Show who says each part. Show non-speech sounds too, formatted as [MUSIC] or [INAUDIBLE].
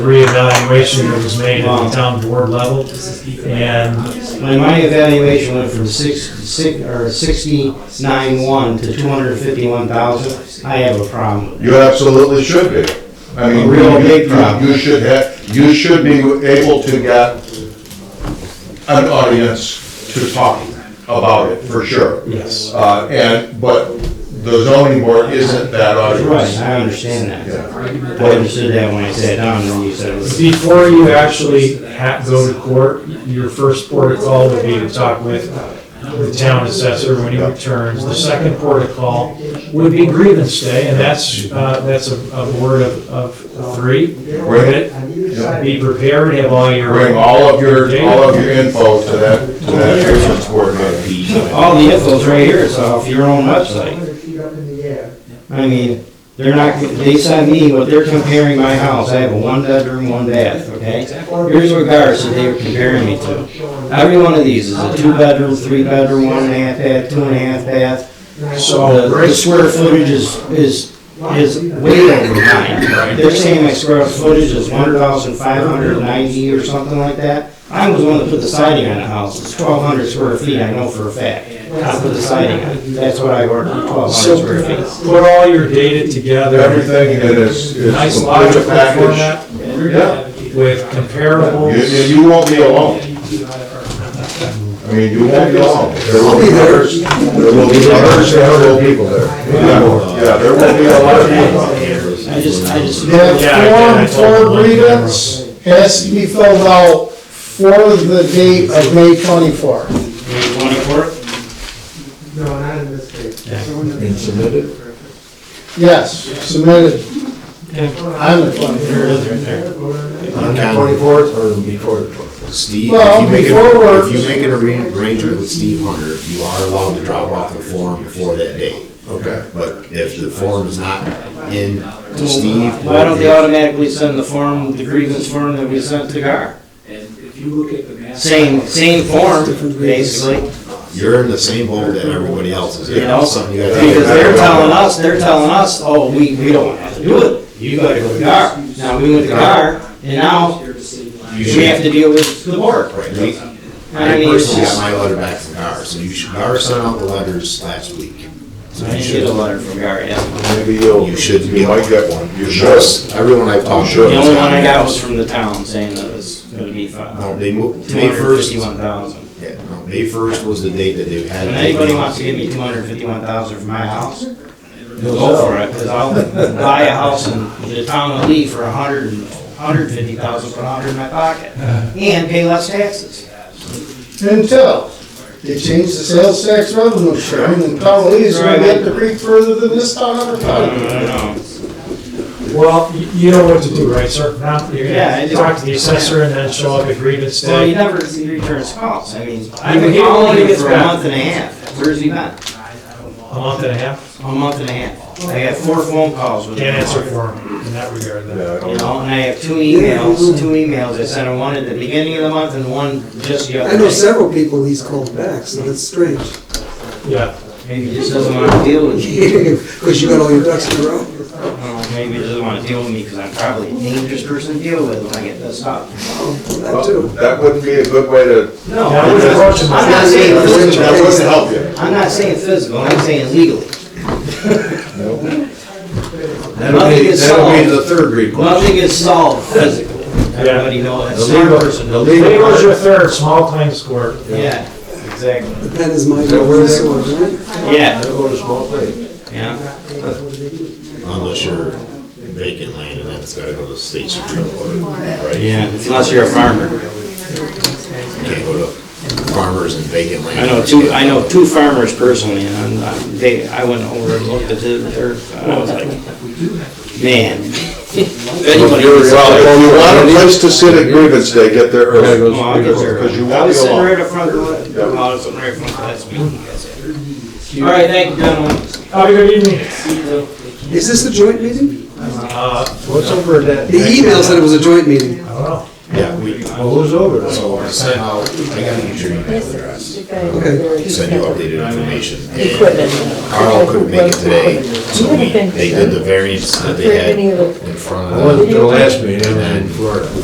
Speaker 1: reevaluation that was made at the town board level, and
Speaker 2: My, my evaluation went from six, six, or sixty-nine one to two hundred fifty-one thousand. I have a problem with
Speaker 3: You absolutely should be. I mean,
Speaker 2: Real
Speaker 3: you-
Speaker 2: big
Speaker 3: you-
Speaker 2: problem.
Speaker 3: You should have, you should be able to get an audience to talk about it, for sure.
Speaker 2: Yes.
Speaker 3: Uh, and, but the zoning board isn't that
Speaker 2: it. Right,
Speaker 3: audience.
Speaker 2: I understand that.
Speaker 3: Yeah.
Speaker 2: I understood that when I sat down and you said it was.
Speaker 1: before you actually ha go to court, your first port of call would be to talk with the town assessor when he returns. The second port of call would be grievance day, and that's, uh, that's a, a board of, of three.
Speaker 3: Bring,
Speaker 1: Be prepared, have all your.
Speaker 3: bring all of your, all of your info to that, to that grievance board meeting.
Speaker 2: All the info's right here, it's off your own website. I mean, they're not, they sent me what they're comparing my house. I have a one-bedroom, one-bath, okay? Here's what Garza, they were comparing me to. Every one of these is a two-bedroom, three-bedroom, one and a half bath, two and a half bath.
Speaker 1: So,
Speaker 2: The the square footage is, is, is way over mine. They're saying my square footage is one thousand five hundred ninety or something like that. I was the one that put the siding on the house, it's twelve hundred square feet, I know for a fact. I put the siding on, it. that's what I ordered, twelve
Speaker 1: so
Speaker 2: hundred square feet.
Speaker 1: put all your data together,
Speaker 3: Everything in is, is
Speaker 1: nice
Speaker 3: complete
Speaker 1: logical
Speaker 3: package.
Speaker 1: format
Speaker 3: Yeah,
Speaker 1: with
Speaker 3: you,
Speaker 1: comparables.
Speaker 3: you you won't be alone. I mean, you won't be alone. There will be others, there will be others, there will be people there. Yeah, yeah, there will be a lot of people.
Speaker 2: I just, I just.
Speaker 1: Yeah, I
Speaker 4: That
Speaker 1: did. I
Speaker 4: form
Speaker 1: told
Speaker 4: for
Speaker 1: them.
Speaker 4: grievance has to be filled out for the date of May twenty-fourth.
Speaker 2: Twenty-four?
Speaker 5: No, not in this case.
Speaker 4: Yes, submitted on the twenty-fourth.
Speaker 6: On the twenty-fourth or before the twenty-fourth? Steve, if
Speaker 4: Well,
Speaker 6: you make it,
Speaker 4: before we're-
Speaker 6: if you make an arra- arrangement with Steve Hunter, you are allowed to drop off the form before that date.
Speaker 3: Okay.
Speaker 6: But if the form is not in to Steve.
Speaker 2: Why don't they automatically send the form, the grievance form that we sent to Gar? Same, same form, basically.
Speaker 6: You're in the same boat that everybody else is.
Speaker 2: You know,
Speaker 6: Something you gotta-
Speaker 2: Because they're telling us, they're telling us, oh, we, we don't have to do it, you gotta go to GAR. Now, we went to GAR, and now
Speaker 6: You
Speaker 2: we have
Speaker 6: should.
Speaker 2: to deal with the board.
Speaker 6: Right, we-
Speaker 2: I
Speaker 6: I
Speaker 2: mean, it's
Speaker 6: personally got
Speaker 2: just,
Speaker 6: my letter back from Gar, so you should, Gar sent out the letters last week. So
Speaker 2: I
Speaker 6: you
Speaker 2: should
Speaker 6: should,
Speaker 2: have letter from GAR, yeah.
Speaker 3: Maybe you'll,
Speaker 6: You should
Speaker 3: you might get one. You should.
Speaker 6: most, everyone I've talked to.
Speaker 2: The only one I got was from the town saying that it's gonna be five
Speaker 6: No,
Speaker 2: hundred,
Speaker 6: they moved,
Speaker 2: two
Speaker 6: May
Speaker 2: hundred
Speaker 6: first,
Speaker 2: fifty-one thousand.
Speaker 6: Yeah, no, May first was the date that they had.
Speaker 2: If anybody wants to give me two hundred fifty-one thousand for my house, they'll go for it, cause I'll buy a house in the town of Lee for a hundred and, hundred fifty thousand, put a hundred in my pocket, and pay less taxes.
Speaker 4: Until they change the sales tax revenue sharing, and probably is gonna get to creep further than this town ever
Speaker 3: Uh,
Speaker 2: I
Speaker 4: could.
Speaker 2: don't know.
Speaker 1: Well, y- you know what to do, right, sir? Now, you're
Speaker 2: Yeah, I
Speaker 1: gonna
Speaker 2: do.
Speaker 1: talk to the assessor and then show up at grievance
Speaker 2: Well, he
Speaker 1: day.
Speaker 2: never returns calls, I mean, I've
Speaker 1: He-
Speaker 2: been
Speaker 1: he
Speaker 2: calling
Speaker 1: only
Speaker 2: him
Speaker 1: gets
Speaker 2: for a
Speaker 1: back.
Speaker 2: month and a half, where's he been?
Speaker 1: A month and a half,
Speaker 2: A month and a half, I got four phone calls with him.
Speaker 1: can't answer for him in that regard, then.
Speaker 3: Yeah, I
Speaker 2: You
Speaker 3: don't-
Speaker 2: know, and I have two emails, two emails, I sent him one at the beginning of the month and one just the
Speaker 7: I
Speaker 2: other
Speaker 7: know
Speaker 2: day.
Speaker 7: several people he's called back, so that's strange. [LAUGHS]
Speaker 1: Yeah,
Speaker 2: Maybe he just doesn't wanna deal with me.
Speaker 7: Because you got all your ducks in a row.
Speaker 2: Well, maybe he doesn't want to deal with me because I'm probably a dangerous person to deal with when I get this up.
Speaker 7: That
Speaker 3: Well,
Speaker 7: too.
Speaker 3: That wouldn't be a good way to,
Speaker 2: No,
Speaker 1: That was approachable.
Speaker 2: I'm not saying
Speaker 3: that wouldn't, that wouldn't
Speaker 2: physical.
Speaker 3: help you.
Speaker 2: I'm not saying physical, I'm saying legally.
Speaker 3: That'll be, that'll be the third recourse.
Speaker 2: Nothing is solved physically. Everybody knows
Speaker 3: The
Speaker 2: that. Smart
Speaker 3: legal-
Speaker 2: person.
Speaker 3: the
Speaker 1: Today
Speaker 3: legal
Speaker 1: was your third small claims court.
Speaker 2: Yeah, exactly.
Speaker 7: That is my word, so right?
Speaker 2: Yeah,
Speaker 3: That'll go to small claim.
Speaker 2: yeah.
Speaker 6: Unless you're vacant land and that's gotta go to the state supreme court, right?
Speaker 2: Yeah, unless you're a farmer.
Speaker 6: You can't go to farmers and vacant land.
Speaker 2: I know two, I know two farmers personally, and I'm- I'm, they, I went over and looked at their, I was like, man. If anybody
Speaker 3: Well,
Speaker 2: was-
Speaker 3: if you want a place to sit at grievance day, get there early.
Speaker 2: Oh, I'll get there.
Speaker 3: Because you
Speaker 2: I
Speaker 3: won't
Speaker 2: was
Speaker 3: be
Speaker 2: sitting
Speaker 3: alone.
Speaker 2: right up front of the, no, I was sitting right up front of the last meeting, you guys had. All right, thank you, gentlemen.
Speaker 1: Have a good evening.
Speaker 7: Is this a joint meeting?
Speaker 1: Uh,
Speaker 3: What's over at that?
Speaker 7: The email said it was a joint meeting.
Speaker 1: I don't know.
Speaker 6: Yeah, we,
Speaker 3: Well, who's over there?
Speaker 6: so I sent out, I gotta get your email address,
Speaker 7: Okay.
Speaker 6: send you updated information.
Speaker 8: Equipment.
Speaker 6: Carl couldn't make it today, so we, they did the variance that they
Speaker 8: Any
Speaker 6: had
Speaker 8: of the
Speaker 6: in front
Speaker 3: I
Speaker 6: of them.
Speaker 3: wasn't at the last meeting, I was in Florida.